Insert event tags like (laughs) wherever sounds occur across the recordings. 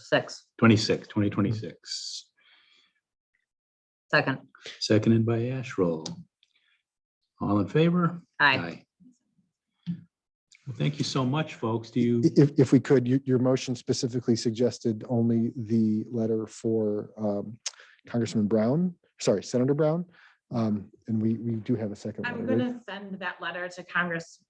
Six, 26, 2026. second. Seconded by Asherall. All in favor? Aye. Well, thank you so much, folks. Do you, If, if we could, your, your motion specifically suggested only the letter for um, Congressman Brown, sorry, Senator Brown. Um, And we, we do have a second. letter, I'm right? gonna send that letter to Congress,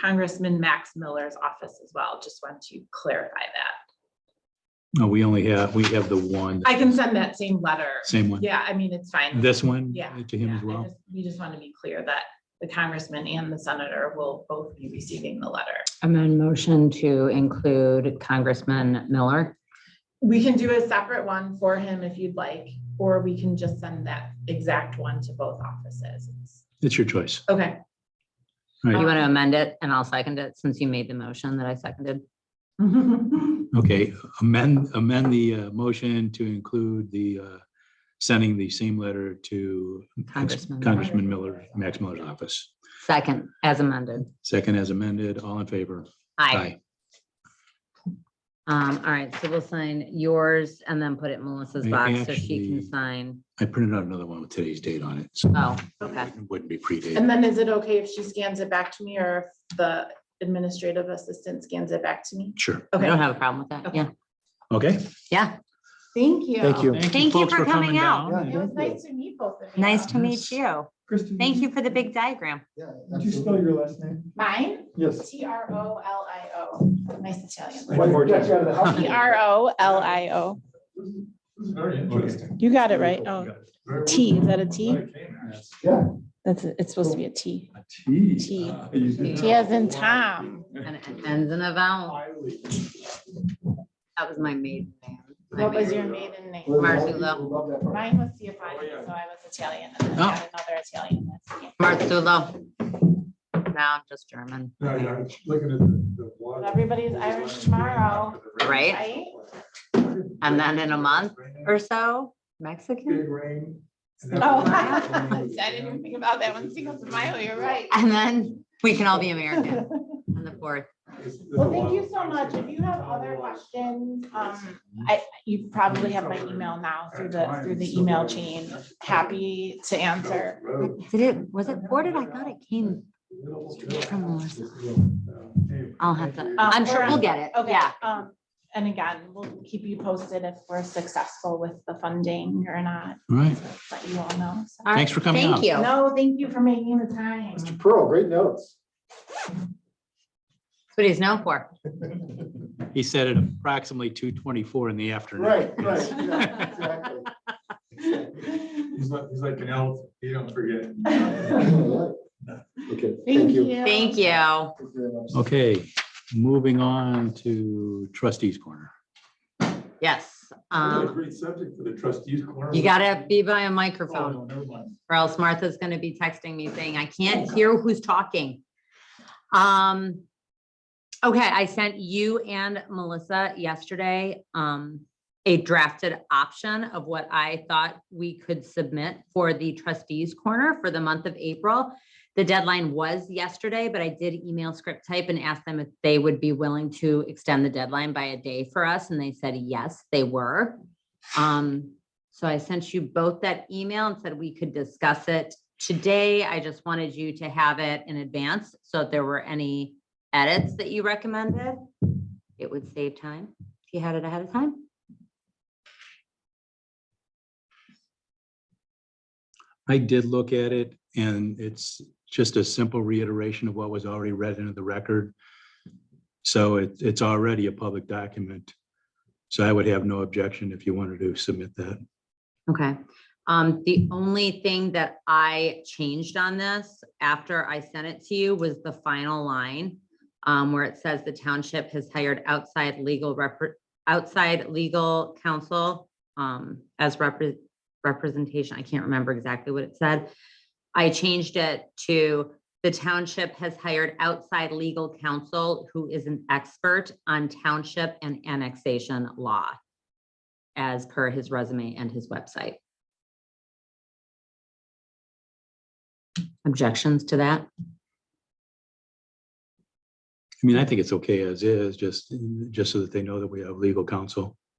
Congressman Max Miller's office as well. Just want to clarify that. no, oh, we only have, we have the one, I can send that same letter. same one. Yeah, I mean, it's fine. This one? Yeah, To him Yeah, as I well? just- We just want to be clear that the congressman and the senator will both be receiving the letter. And then motion to include Congressman Miller. We can do a separate one for him if you'd like, or we can just send that exact one to both offices. It's- It's your choice. Okay. All You right. want to amend it and I'll second it since you made the motion that I seconded. (laughs) Okay, amend, amend the uh, motion to include the, uh, sending the same letter to Congressman Miller. Congressman Miller, Max Miller's office. Second, as amended. Second as amended, all in favor? Aye. Um, all right, so we'll sign yours and then put it in Melissa's I box so she actually- can sign. I printed out another one with today's date on it, so Oh, okay. it wouldn't be predated. And then is it okay if she scans it back to me or if the administrative assistant scans it back to me? Sure. I don't Okay, have a problem with that. Okay. Yeah, Okay. yeah. thank you. Thank you. Thank you folks, for coming out. down. It was nice to meet both of you. Nice to meet Yes. you. Kristen. Thank did you for the big diagram. Did you spell your last name? Mine, Yes. T R O L I O, nice Italian. One more time. T R O L I O. Very interesting. You got it right. Oh, T, is that a T? Yeah. That's, it's supposed to be a T. A T. T. Ah, you did T as that. in Tom. And it ends in a vowel. Highly. That was my maiden name. My What was maiden- your maiden name? Marzullo. Love that part. Mine was Theophilus, so I was Italian and then I got another Italian. that's- yeah. Marzullo. Now just German. No, yeah, I was looking at the- the water. But Everybody's Irish tomorrow, Right? right? And then in a month or so, Mexican. Big rain. Oh, (laughs) (laughs) I didn't even think about that one, Cinco de Mayo, you're right. And then we can all be American (laughs) on the fourth. Well, thank you so much. If you have other questions, um, I, you probably have my email now through the, through the email chain. Happy to answer. Did it, was it four? Did I thought it came? from Melissa. uh, I'll have to, Uh, I'm sure or- we'll get it. Okay, Yeah. um, and again, we'll keep you posted if we're successful with the funding or not, All right, let you all know. so. All right, Thanks for coming out. Thank you. That's No, thank you for making the (laughs) time. Mr. Pearl, great notes. what he's known for. he said at approximately two twenty-four in the afternoon. Right, right. yeah, exactly. Um, He's like, he's like an elf, he don't (laughs) forget. Okay, thank you. Thank you. Thank you very much. Okay, moving on to trustees corner. Yes. What a Um, Great subject for the trustees corner. you gotta be by a Oh, microphone no, never mind. or else Martha's gonna be texting me saying, I can't hear who's talking. Um, okay, I sent you and Melissa yesterday, um, a drafted option of what I thought we could submit for the trustees corner for the month of April. The deadline was yesterday, but I did email script type and asked them if they would be willing to extend the deadline by a day for us, and they said, yes, they were. Um, so I sent you both that email and said we could discuss it today. I just wanted you to have it in advance. So if there were any edits that you recommended, it would save time if you had it ahead of time. I did look at it and it's just a simple reiteration of what was already read into the record. So it, it's already a public document. So I would have no objection if you wanted to submit that. Okay, um, the only thing that I changed on this after I sent it to you was the final line. Um, where it says the township has hired outside legal rep, outside legal counsel, um, as repre- representation. I can't remember exactly what it said. I changed it to the township has hired outside legal counsel who is an expert on township and annexation law as per his resume and his website. Objections to that? I mean, I think it's okay as is, just, just so that they know that we have legal counsel.